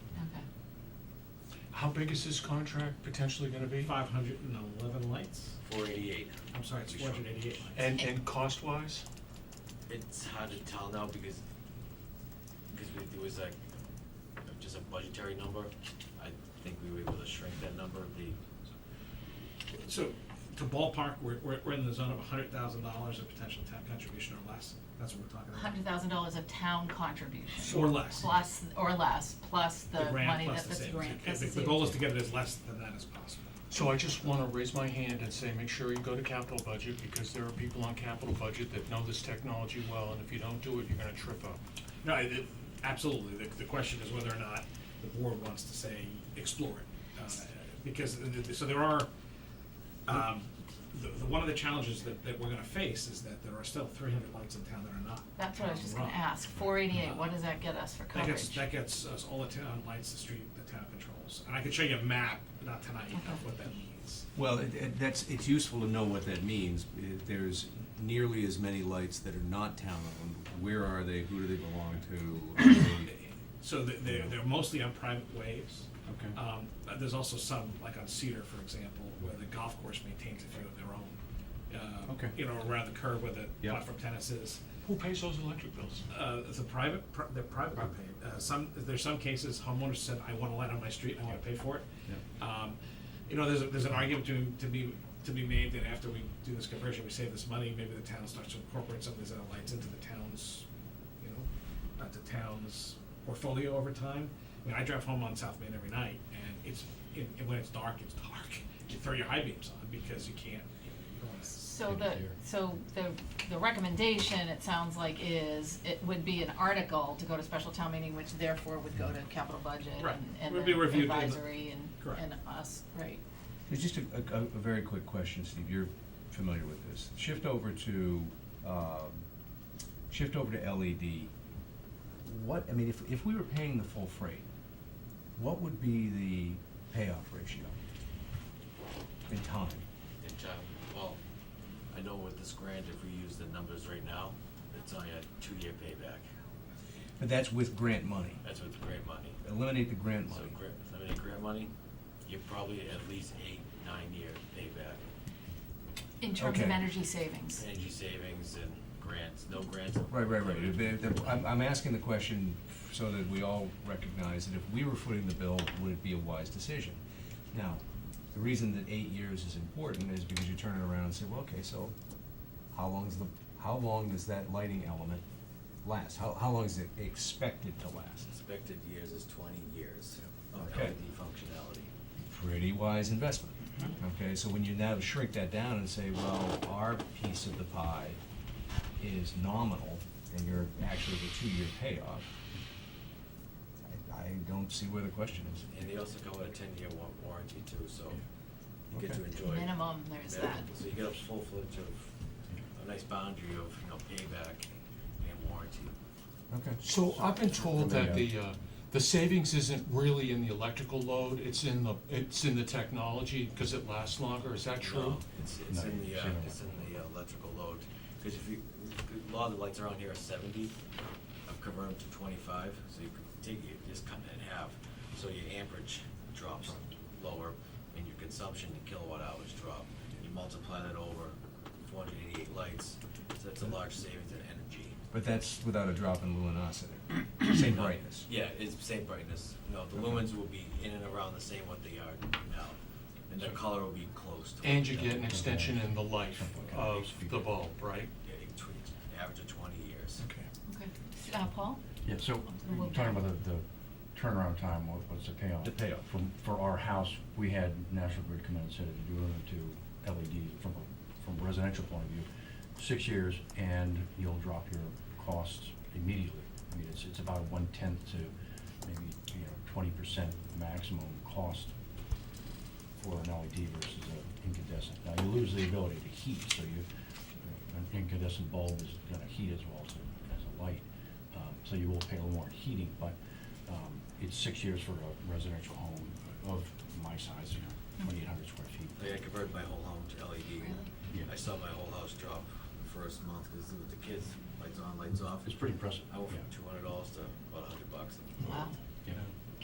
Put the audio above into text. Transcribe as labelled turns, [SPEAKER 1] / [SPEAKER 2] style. [SPEAKER 1] How big is this contract potentially gonna be?
[SPEAKER 2] Five hundred and eleven lights,
[SPEAKER 3] Four eighty-eight.
[SPEAKER 2] I'm sorry, it's four hundred and eighty-eight lights.
[SPEAKER 1] And, and cost-wise?
[SPEAKER 3] It's hard to tell now because, because we, there was like, just a budgetary number. I think we were able to shrink that number, the,
[SPEAKER 2] So, to ballpark, we're, we're, we're in the zone of hundred thousand dollars of potential town contribution or less, that's what we're talking about.
[SPEAKER 4] hundred thousand dollars of town contribution.
[SPEAKER 2] Or less.
[SPEAKER 4] Plus, or less, plus
[SPEAKER 2] The
[SPEAKER 4] the
[SPEAKER 2] grant
[SPEAKER 4] money
[SPEAKER 2] plus
[SPEAKER 4] that
[SPEAKER 2] the
[SPEAKER 4] this
[SPEAKER 2] savings.
[SPEAKER 4] grant,
[SPEAKER 2] Okay,
[SPEAKER 4] plus
[SPEAKER 2] the-
[SPEAKER 4] the
[SPEAKER 2] The goal is
[SPEAKER 4] savings.
[SPEAKER 2] to get it as less than that as possible.
[SPEAKER 1] So I just wanna raise my hand and say, make sure you go to capital budget, because there are people on capital budget that know this technology well, and if you don't do it, you're gonna trip up.
[SPEAKER 2] No, I- it- absolutely, the, the question is whether or not the board wants to say, explore it. Uh, Because, the- the- so there are, um, the, the, one of the challenges that, that we're gonna face is that there are still three hundred lights in town that are not.
[SPEAKER 4] That's what I was just gonna
[SPEAKER 2] run.
[SPEAKER 4] ask, four eighty-eight, what does that get us for
[SPEAKER 2] That gets,
[SPEAKER 4] coverage?
[SPEAKER 2] that gets us all the town lights, the street, the town controls, and I could show you a map, not tonight, of what that means.
[SPEAKER 5] Well, it, it, that's, it's useful to know what that means. Uh, There's nearly as many lights that are not town-owned. Where are they? Who do they belong to? Are they-
[SPEAKER 2] So they- they're, they're mostly on private ways.
[SPEAKER 5] Okay.
[SPEAKER 2] Um, but there's also some, like on Cedar, for example, where the golf course maintains a few of their own. uh,
[SPEAKER 5] Okay.
[SPEAKER 2] You know, around the curve where the
[SPEAKER 5] Yeah.
[SPEAKER 2] platform tennis is.
[SPEAKER 1] Who pays those electric bills?
[SPEAKER 2] Uh, it's a private, pri- they're privately paid. Uh, some, there's some cases homeowners said, I want a light on my street, and I wanna pay for it. Um, you know, there's, a- there's an argument to, to be, to be made that after we do this conversion, we save this money, maybe the town starts to incorporate some of these other lights into the town's, you know, uh, the town's portfolio over time. I mean, I drive home on South Main every night, and it's, and and when it's dark, it's dark. You throw your high beams on because you can't, you don't wanna
[SPEAKER 4] So the, so the, the recommendation, it sounds like, is, it would be an article to go to special town meeting, which therefore would go to capital budget
[SPEAKER 2] Right.
[SPEAKER 4] and,
[SPEAKER 2] Would
[SPEAKER 4] and
[SPEAKER 2] be
[SPEAKER 4] then
[SPEAKER 2] reviewed in the-
[SPEAKER 4] advisory and,
[SPEAKER 2] Correct.
[SPEAKER 4] and us, right.
[SPEAKER 5] There's just a, a, a very quick question, Steve, you're familiar with this. Shift over to, um, shift over to LED. What, I mean, if, if we were paying the full freight, what would be the payoff ratio in time?
[SPEAKER 3] the job. Well, I know with this grant, if we use the numbers right now, it's only a two-year payback.
[SPEAKER 5] But that's with grant money.
[SPEAKER 3] That's with the grant money.
[SPEAKER 5] Eliminate the grant
[SPEAKER 3] So
[SPEAKER 5] money.
[SPEAKER 3] grant, I mean, grant money, you're probably at least eight, nine-year payback.
[SPEAKER 4] In terms of
[SPEAKER 5] Okay.
[SPEAKER 4] energy savings.
[SPEAKER 3] Energy savings and grants, no grants.
[SPEAKER 5] Right, right, right. If they- if they- I'm, I'm asking the question so that we all recognize that if we were footing the bill, would it be a wise decision? Now, the reason that eight years is important is because you turn it around and say, well, okay, so how long's the, how long does that lighting element last? How, how long is it expected to last?
[SPEAKER 3] Expected years is twenty years of
[SPEAKER 5] Okay.
[SPEAKER 3] LED functionality.
[SPEAKER 5] Pretty wise investment. Okay, so when you now shrink that down and say, well, our piece of the pie is nominal, and you're actually the two-year payoff, I, I don't see where the question is.
[SPEAKER 3] And they also come with a ten-year wa- warranty too, so you get to
[SPEAKER 5] Okay.
[SPEAKER 3] enjoy.
[SPEAKER 4] Minimum, there's
[SPEAKER 3] Yeah,
[SPEAKER 4] that.
[SPEAKER 3] So you get a full fledged of, a nice boundary of, you know, payback and warranty.
[SPEAKER 5] Okay.
[SPEAKER 1] So I've been told that the, uh, the savings isn't really in the electrical load, it's in the, it's in the technology, because it lasts longer, is that true?
[SPEAKER 3] No, It's, it's
[SPEAKER 5] No,
[SPEAKER 3] in the, uh,
[SPEAKER 5] zero.
[SPEAKER 3] it's in the electrical load, cause if you, a lot of the lights around here are seventy, I've converted to twenty-five, so you could take, you just cut it in half, so your amperage drops lower, and your consumption in kilowatt hours drop, you multiply that over four hundred eighty-eight lights, so that's a large savings in energy.
[SPEAKER 5] But that's without a drop in luminosity, same
[SPEAKER 3] No,
[SPEAKER 5] brightness.
[SPEAKER 3] Yeah, it's the same brightness. No, the lumens will be in and around the same what they are now, and the color will be close to.
[SPEAKER 1] And you get an extension in the life of the bulb, right?
[SPEAKER 3] Yeah, it tweaks, average of twenty years.
[SPEAKER 1] Okay.
[SPEAKER 4] Okay, uh, Paul?
[SPEAKER 6] Yeah, so,
[SPEAKER 4] We'll-
[SPEAKER 6] you're talking about the, the turnaround time, what, what's the payoff?
[SPEAKER 5] The payoff.
[SPEAKER 6] From, for our house, we had National Grid come in and said, if you're going to LED from, a- from a residential point of view, six years, and you'll drop your costs immediately. I mean, it's, it's about one-tenth to maybe, you know, twenty percent maximum cost for an LED versus an incandescent. Now, you lose the ability to heat, so you, an incandescent bulb is gonna heat as well as, a- as a light. Um, So you will pay a little more in heating, but um, it's six years for a residential home of my size, you know, twenty-eight hundred square
[SPEAKER 3] Like I
[SPEAKER 6] feet.
[SPEAKER 3] converted my whole home to LED.
[SPEAKER 4] Really?
[SPEAKER 6] Yeah.
[SPEAKER 3] I saw my whole house drop the first month because with the kids, lights on, lights off.
[SPEAKER 6] It's pretty impressive,
[SPEAKER 3] I went from
[SPEAKER 6] yeah.
[SPEAKER 3] two hundred dollars to about a hundred bucks.
[SPEAKER 4] Wow.